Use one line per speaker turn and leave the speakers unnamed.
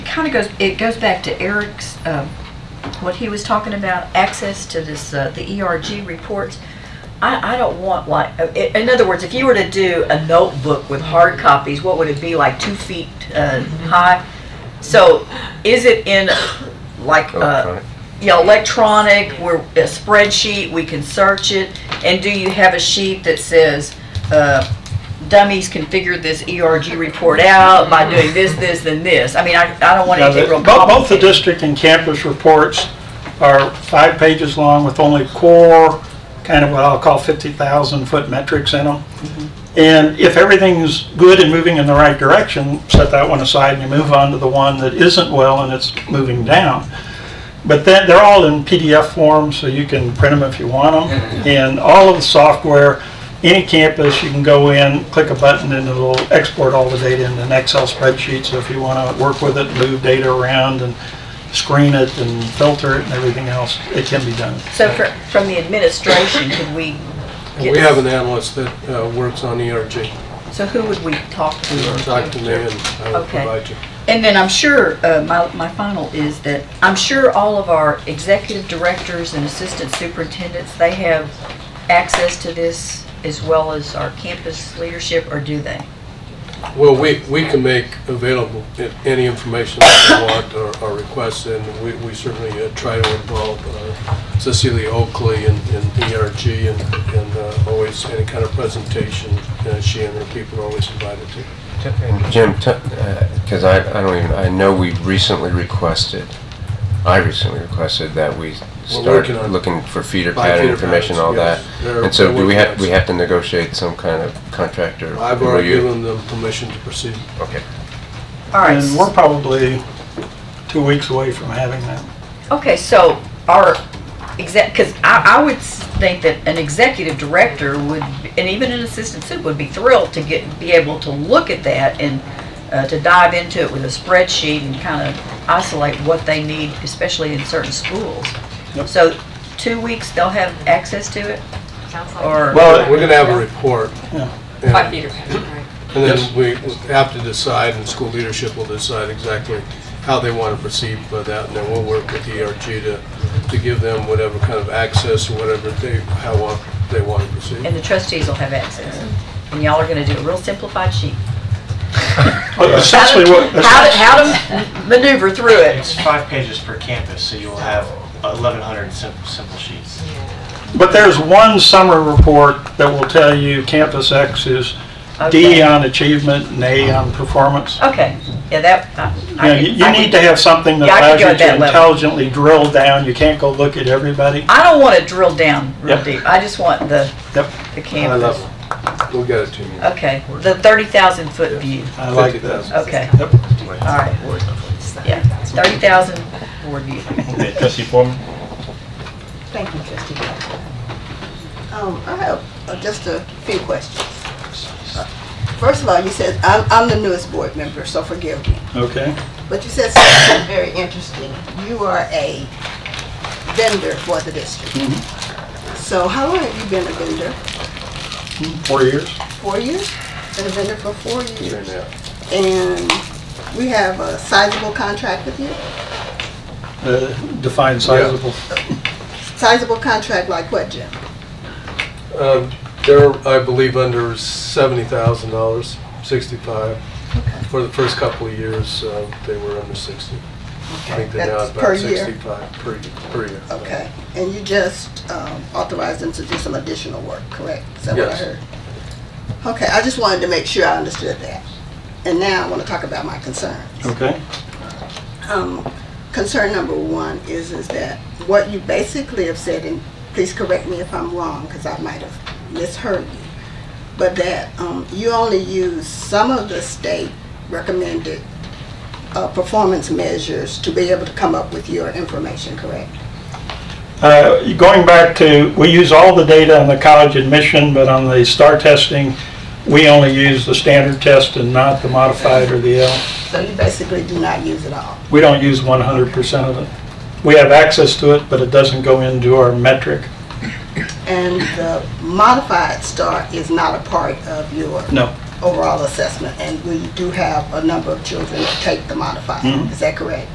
kind of goes, it goes back to Eric's, um, what he was talking about, access to this, uh, the ERG reports. I, I don't want like, uh, i- in other words, if you were to do a notebook with hard copies, what would it be, like two feet uh, high? So is it in like, uh,
Electronic.
yeah, electronic, where a spreadsheet, we can search it? And do you have a sheet that says, uh, dummies can figure this ERG report out by doing this, this, and this? I mean, I, I don't want
Yeah,
anything
the-
real
bo- Both the
complicated.
district and campus reports are five pages long with only core, kind of what I'll call 50,000-foot metrics in them. And if everything's good and moving in the right direction, set that one aside and you move on to the one that isn't well and it's moving down. But then, they're all in PDF form, so you can print them if you want them.
Mm-hmm.
And all of the software, any campus, you can go in, click a button, and it'll export all the data into an Excel spreadsheet. So if you want to work with it, move data around and screen it and filter it and everything else, it can be done.
So fr- from the administration, could we?
We have an analyst that uh, works on ERG.
So who would we talk to?
Talk to me and I will
Okay.
provide you.
And then I'm sure, uh, my, my final is that, I'm sure all of our executive directors and assistant superintendents, they have access to this as well as our campus leadership, or do they?
Well, we, we can make available i- any information that you want or- or request, and we we certainly uh, try to involve uh, Cecilia Oakley in in ERG and and uh, always any kind of presentation, uh, she and her people are always invited to.
Jim, because I, I don't even, I know we recently requested, I recently requested that we start
working on it.
looking for feeder
By
pattern
feeder
information,
patterns,
all that.
yes. They're-
And so
they're
do we have,
working
we
on it.
have to negotiate some kind of contract or?
I've
will
already
you-
given them permission to proceed.
Okay.
All right.
And we're probably two weeks away from having that.
Okay, so our exec, because I, I would s- think that an executive director would, and even an assistant sup would be thrilled to get, be able to look at that and uh, to dive into it with a spreadsheet and kind of isolate what they need, especially in certain schools.
Yep.
So two weeks, they'll have access to it?
Sounds like.
Or,
Well, we're going to have a report.
Yeah.
and-
Five feet or right.
And then we have to decide, and school leadership will decide exactly how they want to proceed with that, and then we'll work with ERG to, to give them whatever kind of access or whatever they, how want- they want to proceed.
and the trustees will have access. And y'all are going to do a real simplified sheet.
But Essentially what.
How to, how to maneuver through
It's
it.
five pages per campus, so you'll have 1,100 simple simple sheets.
But there's one summer report that will tell you Campus X is D
Okay.
on achievement and A on performance.
Okay, yeah, that, I- I.
Yeah, you
can-
you
I
need
can-
to have something that
Yeah, I could
allows
go
you
at that
to
level.
intelligently drill down. You can't go look at everybody.
I don't want to drill down real
Yep.
deep. I just want the,
Yep,
the
I
campus.
love, we'll get it to you.
Okay, the 30,000 foot view.
I like that.
50,000.
Okay, all
Yep.
right. Yeah, 30,000 board view.
Okay, trustee Foreman?
Thank you, trustee. Um, I have uh, just a few questions. Uh, First of all, you said, I'm, I'm the newest board member, so forgive me,
Okay.
but you said something very interesting. You are a vendor for the district. So how long have you been a vendor?
Four years.
Four years? Been a vendor for four
Here
years?
now.
And we have a sizable contract with you?
Uh, Define sizable.
Sizable contract like what, Jim?
Um, They're, I believe, under seventy thousand dollars, sixty-five. For the first couple of years, uh, they were under sixty. I think they're now
That's per
about
year?
sixty-five per, per year.
Okay, and you just um, authorized them to do some additional work, correct? Is that what I
Yes.
heard? Okay, I just wanted to make sure I understood that. And now I want to talk about my concerns.
Okay.
Um, Concern number one is, is that what you basically have said, and please correct me if I'm wrong, because I might have misheard you, but that um, you only use some of the state recommended uh, performance measures to be able to come up with your information, correct?
Uh, Going back to, we use all the data on the college admission, but on the STAR testing, we only use the standard test and not the modified or the L.
So you basically do not use it all.
We don't use 100% of it. We have access to it, but it doesn't go into our metric.
And the modified star is not a part of your
No.
overall assessment, and we do have a number of children that take the modified. Is that correct?